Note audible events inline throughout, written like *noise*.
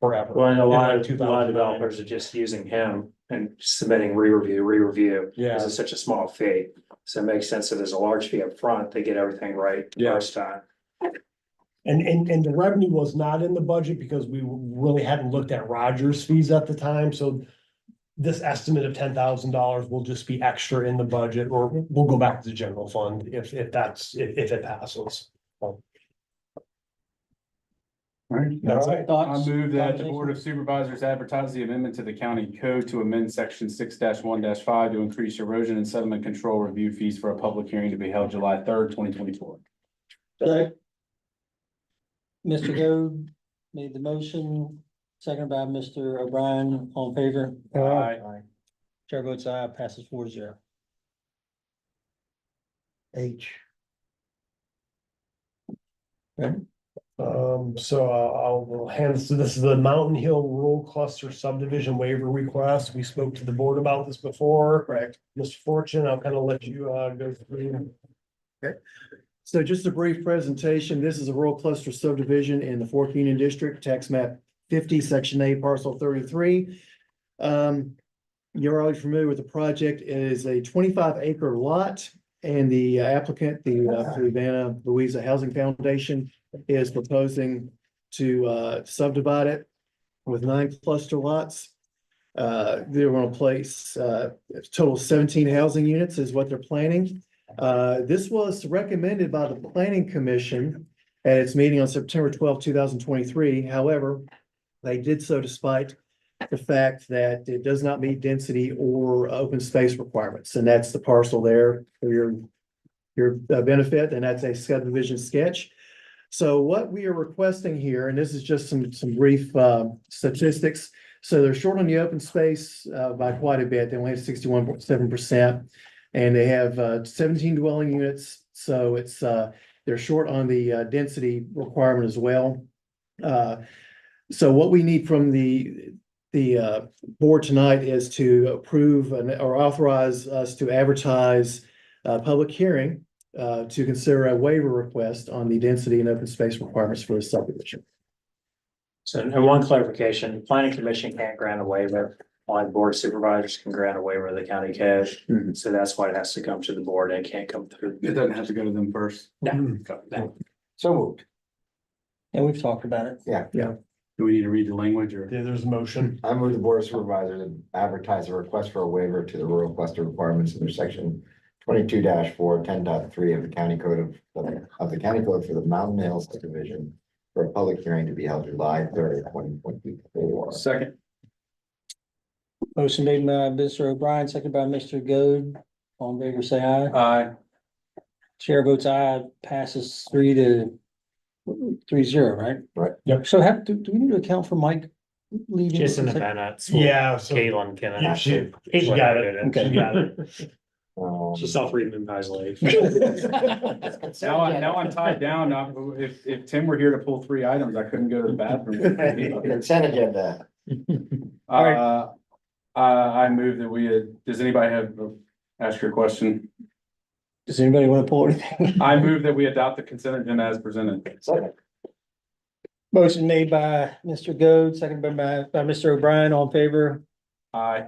forever. Well, and a lot of, In a lot of developers are just using him and submitting re-review, re-review. Because Yeah, it's such a small fee. So it makes sense if there's a large fee up front, they get everything right the Yeah. first time. and, and, and the revenue was not in the budget because we really hadn't looked at Rogers fees at the time, so this estimate of ten thousand dollars will just be extra in the budget, or we'll go back to the general fund if, if that's, if, if it passes. Alright. That's it. I move that the Board of Supervisors advertise the amendment to the county code to amend section six one five to increase erosion and sediment control review fees for a public hearing to be held July third, twenty twenty-four. Second. Mr. Goode made the motion, second by Mr. O'Brien, all in favor, chair votes aye, passes four zero. H. Okay. Um, so I'll, I'll hand this, this is the Mountain Hill Rural Cluster Subdivision Waiver Request. We spoke to the board about this before. Correct. Mr. Fortune, I'll kind of let you, uh, go through. So just a brief presentation. This is a rural cluster subdivision in the fourth Union District, tax map fifty, section eight, parcel thirty-three. Um, you're already familiar with the project. It is a twenty-five acre lot. And the applicant, the uh, Savannah Louisa Housing Foundation is proposing to uh, subdivide it with nine cluster lots. Uh, they're gonna place, uh, a total of seventeen housing units is what they're planning. Uh, this was recommended by the planning commission at its meeting on September twelfth, two thousand twenty-three. However, they did so despite the fact that it does not meet density or open space requirements, and that's the parcel there for your your uh, benefit, and that's a subdivision sketch. So what we are requesting here, and this is just some some brief uh, statistics. So they're short on the open space uh, by quite a bit. They only have sixty-one point seven percent. And they have uh, seventeen dwelling units, so it's, uh, they're short on the uh, density requirement as well. Uh, So what we need from the, the uh, board tonight is to approve and or authorize us to advertise a public hearing uh, to consider a waiver request on the density and open space requirements for the subdivision. *laughs* So, and one clarification, the planning commission can't grant a waiver. On board supervisors can grant a waiver of the county code. Mm-hmm. Mhm. So that's why it has to come to the board and it can't come through. It doesn't have to go to them first. No. So moved. And we've talked about it, Do we need to read the language or? Yeah, there's a motion. I move the board of supervisors to advertise a request for a waiver to the rural cluster requirements under section twenty-two 410.3 of the county code of, of the county code for the Mountain Hills subdivision for a public hearing to be held July thirtieth, twenty twenty-four. Second. motion made by Mr. O'Brien, second by Mr. Goode, all in favor, say aye, Aye. chair votes aye, passes three to three zero, right? Right. Yep. So have, do, do we need to account for Mike leaving? Just in the minutes. Yeah, so. Caitlin can. Yeah, she- Caitlin she uh, got it. did She got it. Um, She *laughs* self-remembers late. *laughs* *laughs* Now, I- now I'm tied down. I- If, if Tim were here to pull three items, I couldn't go to the bathroom. *laughs* Consent agenda. Alright. Uh, uh, I move that we, uh, does anybody have, ask your question? Does anybody want to pull anything? I move that we adopt the consent agenda as presented. Second. Motion made by Mr. Goode, second by, by, by Mr. O'Brien, all in favor. Aye.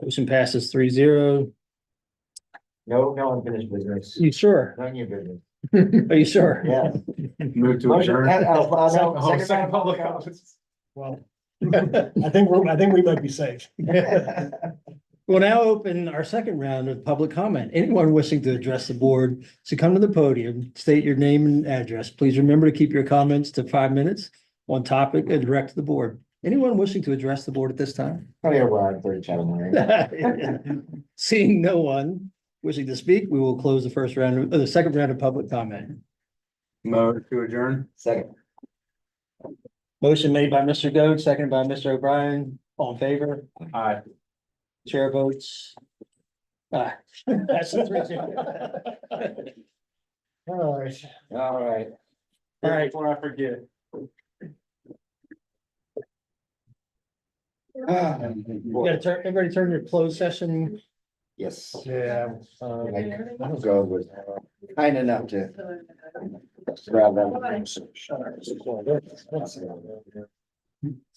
Motion passes three zero. No, no unfinished business. You sure? No new business. Are you sure? *laughs* Yeah. Move to Motion- adjourn. uh, uh, no, Oh, second second round public public comments. Well, *laughs* I think we're, I think we might be safe. *laughs* comment. We'll now open our second round of public comment. Anyone wishing to address the board, to come to the podium, state your name and address. Please remember to keep your comments to five minutes on topic and direct to the board. Anyone wishing to address the board at this time? *laughs* Tony O'Brien, thirty Chatham Lane. *laughs* Seeing no one wishing to speak, we will close the first round, uh, the second round of public comment. Move to adjourn. Second. Motion made by Mr. Goode, seconded by Mr. O'Brien, all in favor, Aye. chair votes. Aye. *laughs* That's a three zero. All right. All right. All right. Before I forget. You gotta turn, everybody turn your closed session, *sighs* Yes. Yeah. Like, um, I'll go with, kind enough to grab that.